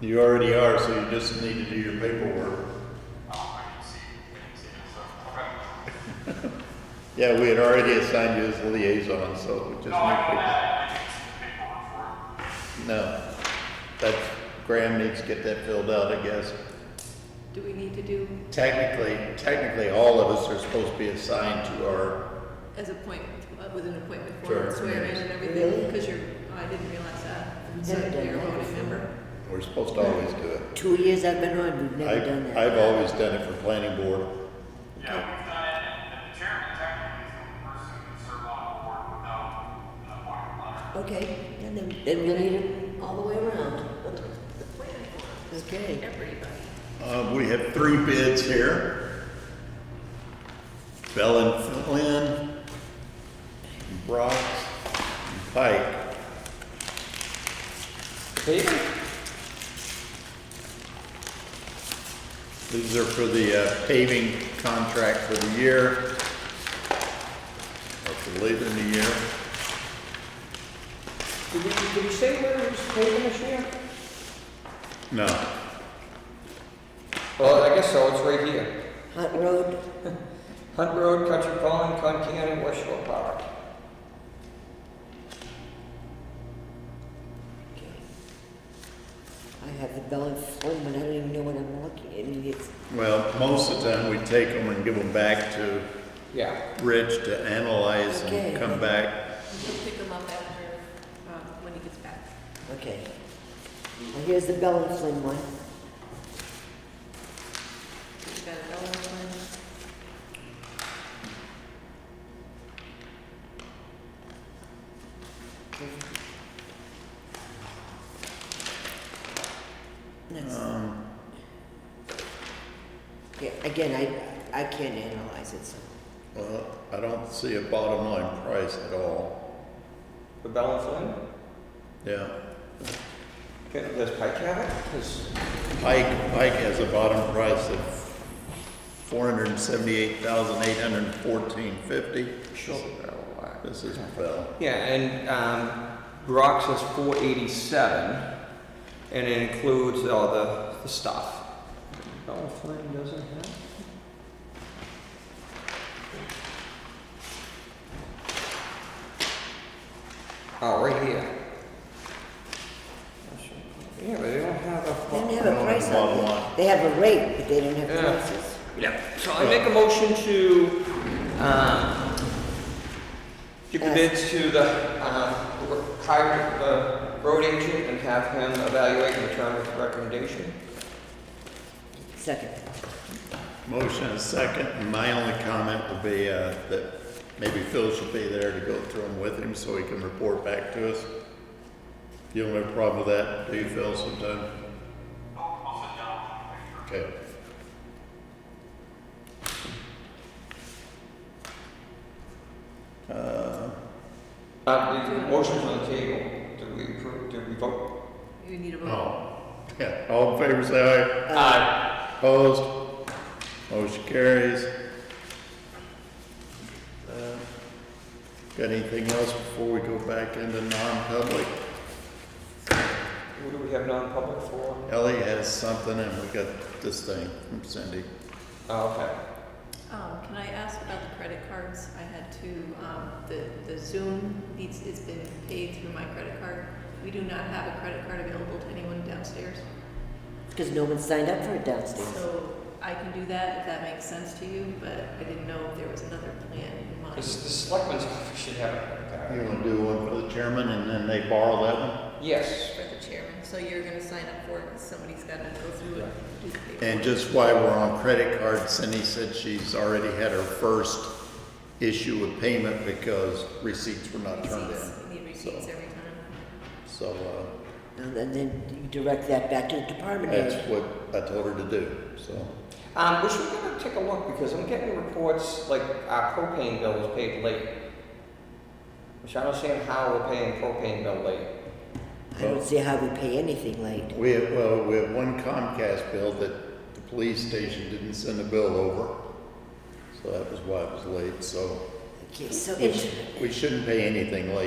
You already are, so you just need to do your paperwork. Oh, I didn't see, I didn't see it, so, okay. Yeah, we had already assigned you as liaison, so we just need No, I know to. that, I didn't see the paperwork for it. No, that, Graham needs to get that filled out, I guess. Do we need to do Technically, technically, all of us are supposed to be assigned to our, as appointment, uh, with an appointment Sure. form, and swear in and everything? Really? Because you're, oh, I didn't realize that. We've So never done you're a that voting before. member. we're supposed to always do it. Two years I've been on, we've never done I- that. I've always done it for planning board. Yeah, we've done it, and and the chairman technically is the only person who can serve on a board without uh, an appointment letter. Okay, then, then- then we'll need it all the way around. The planning board, Okay, everybody. Uh, we have three bids here. Bell and Flynn, Brock, and Pike. Paving? These are for the uh, paving contract for the year. Or for later in the year. Did we, did we say where it was paving this year? No, Well, I guess so, it's right here. Hunt Road, Hunt Road, Country Pond, Concan, West Shore Park. I have the Bell and Flynn, but I don't even know what I'm looking, I mean, it's, well, most of the time we take them and give them back to Yeah. Rich to analyze and Okay. come back. You'll pick them up after, uh, when he gets back. okay. Well, here's the Bell and Flynn one. We've got another one. That's, Um, yeah, again, I, I can't analyze it, so. Well, I don't see a bottom line price at all. The Bell and Flynn? Yeah, Can- Does Pike have it? Does- Pike, Pike has a bottom price of four hundred and seventy-eight thousand, eight hundred and fourteen fifty. Sure. Oh, This is Bell. Yeah, and, um, Brock says four eighty-seven, and it includes all the, the stuff. Bell and Oh, Flynn doesn't have? Oh, right here. Yeah, but they don't have a. They don't have a price Bottom on line. it. They have a rate, but they don't have Yeah. prices. Yeah, so I make a motion to, um, give the bids to the, um, hire the road agent and have him evaluate and return with recommendation. Second. Motion and second, and my only comment would be, uh, that maybe Phil should be there to go through them with him so he can report back to us. You don't have a problem with that, do you, Phil, sometime? Okay. Uh, Uh, the motion's on the table, did we approve, did we vote? You need a vote. oh, yeah, all in favor, say aye. Aye. Opposed? Motion carries. Uh, Got anything else before we go back into non-public? What do we have non-public for? Ellie has something and we got this thing from Cindy. Oh, okay. Um, can I ask about the credit cards? I had to, um, the, the Zoom needs, it's been paid through my credit card. We do not have a credit card available to anyone downstairs. Because no one signed up for it downstairs. So I can do that if that makes sense to you, but I didn't know if there was another plan in The, mind. the selectmen's office should have it. You wanna do one for the chairman and then they borrow that one? Yes. For the chairman, so you're gonna sign up for it, because somebody's gotta go through it, do the paperwork. And just while we're on credit cards, Cindy said she's already had her first issue with payment because receipts were not turned Receipts, in. you need receipts So- every time. So, uh, And then- then you direct that back to the department that's head. what I told her to do, so. Um, we should to take a look, because I'm getting reports, like, our propane bill was paid late. Which I don't understand how we're paying propane bill late. I don't see how we pay anything late. We have, well, we have one Comcast bill that the police station didn't send a bill over. So that was why it was late, so Okay, so we it's. sh- we shouldn't pay anything late.